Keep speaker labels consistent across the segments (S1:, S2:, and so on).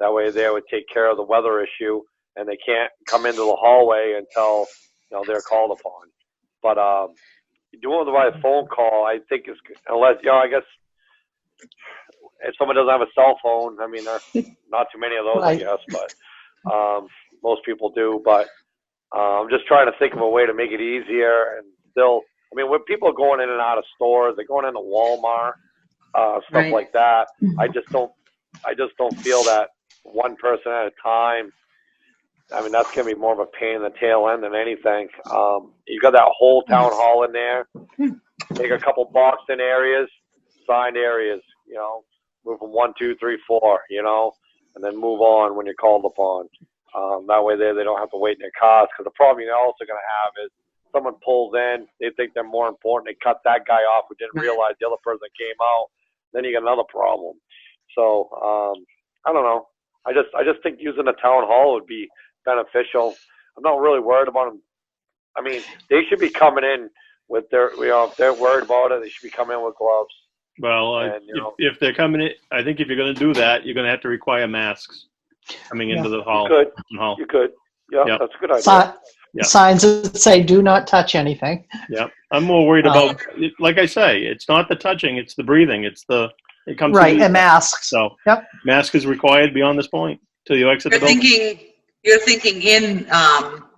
S1: That way they would take care of the weather issue and they can't come into the hallway until, you know, they're called upon. But, um, doing it by phone call, I think is, unless, you know, I guess if someone doesn't have a cell phone, I mean, there are not too many of those, I
S2: Right.
S1: guess, but, um, most people do, but, uh, I'm just trying to think of a way to make it easier and still, I mean, when people are going in and out of stores, they're going into Walmart, uh, stuff
S2: Right.
S1: like that. I just don't, I just don't feel that one person at a time. I mean, that's gonna be more of a pain in the tail end than anything. Um, you got that whole town hall in there. Take a couple boxed in areas, signed areas, you know, move from one, two, three, four, you know, and then move on when you're called upon. Um, that way they, they don't have to wait in their cars. Cause the problem you're also gonna have is someone pulls in, they think they're more important, they cut that guy off who didn't
S2: Right.
S1: realize the other person came out. Then you got another problem. So, um, I don't know. I just I just think using the town hall would be beneficial. I'm not really worried about them. I mean, they should be coming in with their you know if they're worried about it, they should be coming in with gloves.
S3: Well, I-
S1: And, you know-
S3: if, if they're coming in, I think if you're going to do that, you're going to have to require masks coming into the hall.
S1: Good,
S3: hall.
S1: you could. Yeah,
S3: Yeah.
S1: that's a good idea.
S3: Yeah.
S2: Si- Signs that say do not touch anything.
S3: Yeah, I'm more worried
S2: Um,
S3: about, like I say, it's not the touching, it's the breathing, it's the it comes
S2: Right,
S3: to
S2: and masks.
S3: So
S2: Yep.
S3: mask is required beyond this point till you exit the
S4: You're
S3: building.
S4: thinking, you're thinking in, um,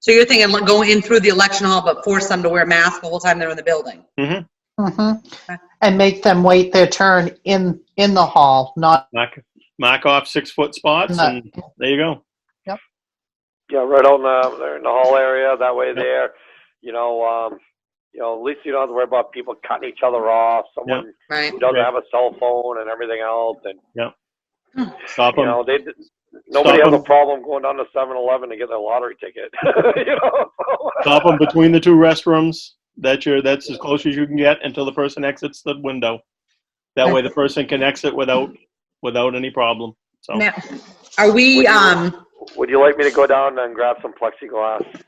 S4: so you're thinking like, going in through the election hall, but force them to wear masks the whole time they're in the building.
S2: Mm-hmm. And make them wait their turn in, in the hall, not,
S3: Mark, mark off six foot spots,
S2: not-
S3: and there you go.
S1: Yeah, right on the they're in the hall area. That way there, you know, um, you know, at least you don't have to worry about people cutting each other off. Someone
S4: Right.
S1: who doesn't
S3: Right.
S1: have a cell phone and everything else, and
S3: Stop
S1: you
S3: them.
S1: know, they nobody has a
S3: 'em.
S1: problem going down to 7-Eleven to get their lottery ticket. you know, so-
S3: Stop them between the two restrooms. That's your. That's as close as you can get until the person exits the window. That way, the person can exit without without any problem. So
S4: Now, are we, um,
S1: Would you like me to go down and grab some plexiglass?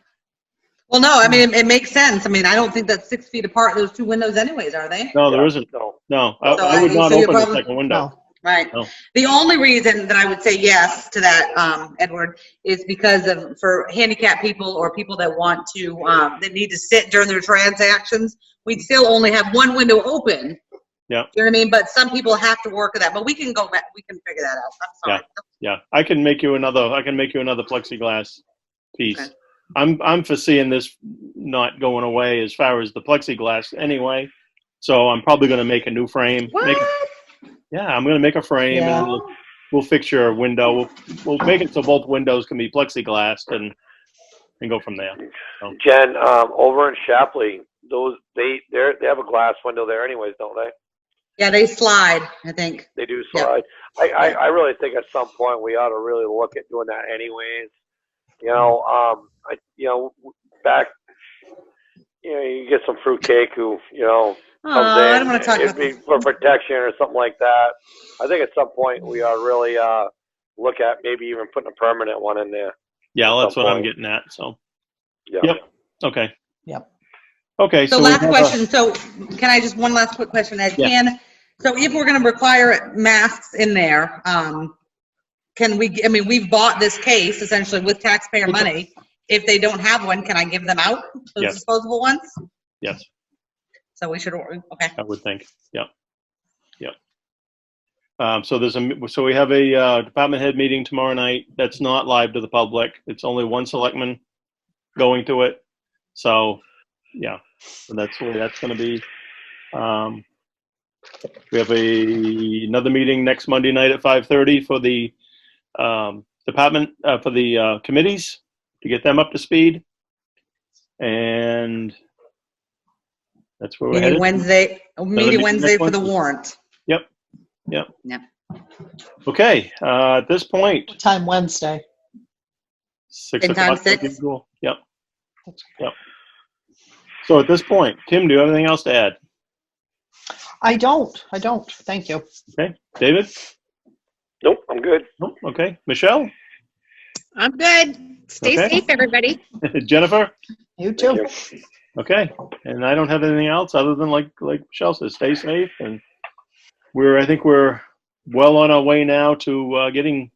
S4: well, no, I mean, it- it makes sense. I mean, I don't think that's six feet apart, those two windows anyways, are they?
S3: no, there
S1: Yeah,
S3: isn't.
S1: No.
S3: No, I,
S4: So
S3: I would
S4: I-
S3: not
S4: so you're
S3: open the
S4: probably-
S3: second window.
S2: no.
S4: Right.
S3: No.
S4: The only reason that I would say yes to that, um, Edward, is because of, for handicapped people or people that want to, um, that need to sit during their transactions, we'd still only have one window open.
S3: Yeah.
S4: You know what I mean? But some people have to work with that, but we can go back, we can figure that out. I'm sorry.
S3: Yeah, I can make you another. I can make you another plexiglass piece.
S4: Okay.
S3: I'm I'm foreseeing this not going away as far as the plexiglass anyway. So I'm probably going to make a new frame.
S4: What?
S3: Make, yeah, I'm going to make a frame
S2: Yeah.
S3: and we'll, we'll fix your window. We'll we'll make it so both windows can be plexiglass and and go from there.
S1: Jen, um, over in Shapley, those they they are they have a glass window there, anyways, don't they?
S4: Yeah, they slide, I think.
S1: They do
S4: Yeah.
S1: slide. I, I I really think at some point we ought to really look at doing that, anyways. You know, um, I you know w- back. You know, you get some fruitcake who you know
S4: Oh,
S1: comes in.
S4: I don't want to talk
S1: it'd
S4: about
S1: be
S4: this.
S1: for protection or something like that. I think at some point we ought to really uh look at maybe even putting a permanent one in there.
S3: Yeah, that's what I'm
S1: Okay.
S3: getting at. So
S1: Yeah.
S3: Yep. okay.
S2: Yep.
S3: Okay.
S4: So
S3: we
S4: last
S3: have a-
S4: question, so can I just, one last quick question, Ed?
S3: Yeah.
S4: Can, so if we're gonna require masks in there, um, can we, I mean, we've bought this case essentially with taxpayer money. If they don't have one, can I give them out, those
S3: Yes.
S4: disposable ones?
S3: Yes,
S4: So we should, order. okay,
S3: I would think. Yeah. Yeah. Um, so there's a so we have a uh, department head meeting tomorrow night. That's not live to the public. It's only one selectman going to it. So yeah, so that's where that's going to be. Um, we have a another meeting next Monday night at 5:30 for the um, department uh, for the uh, committees to get them up to speed. And that's where we're
S4: meeting
S3: headed.
S4: Wednesday,
S3: meeting
S4: meeting Wednesday
S3: next
S4: for the
S3: Wednesday.
S4: warrant.
S3: Okay, uh, at this point,
S2: What Time Wednesday.
S3: six
S4: Same time,
S3: o'clock. would be
S4: six?
S3: cool. Yep. Yep. So at this point, Kim, do you have anything else to add?
S2: I don't, I don't, thank you.
S3: David?
S1: Nope, I'm good.
S3: Nope. Okay. Michelle?
S5: I'm good. Stay
S3: Okay.
S5: safe, everybody.
S3: Jennifer?
S2: You
S1: Thank
S2: too.
S1: you.
S3: Okay. And I don't have anything else other than like like Michelle says, stay safe. And we're I think we're well on our way now to uh, getting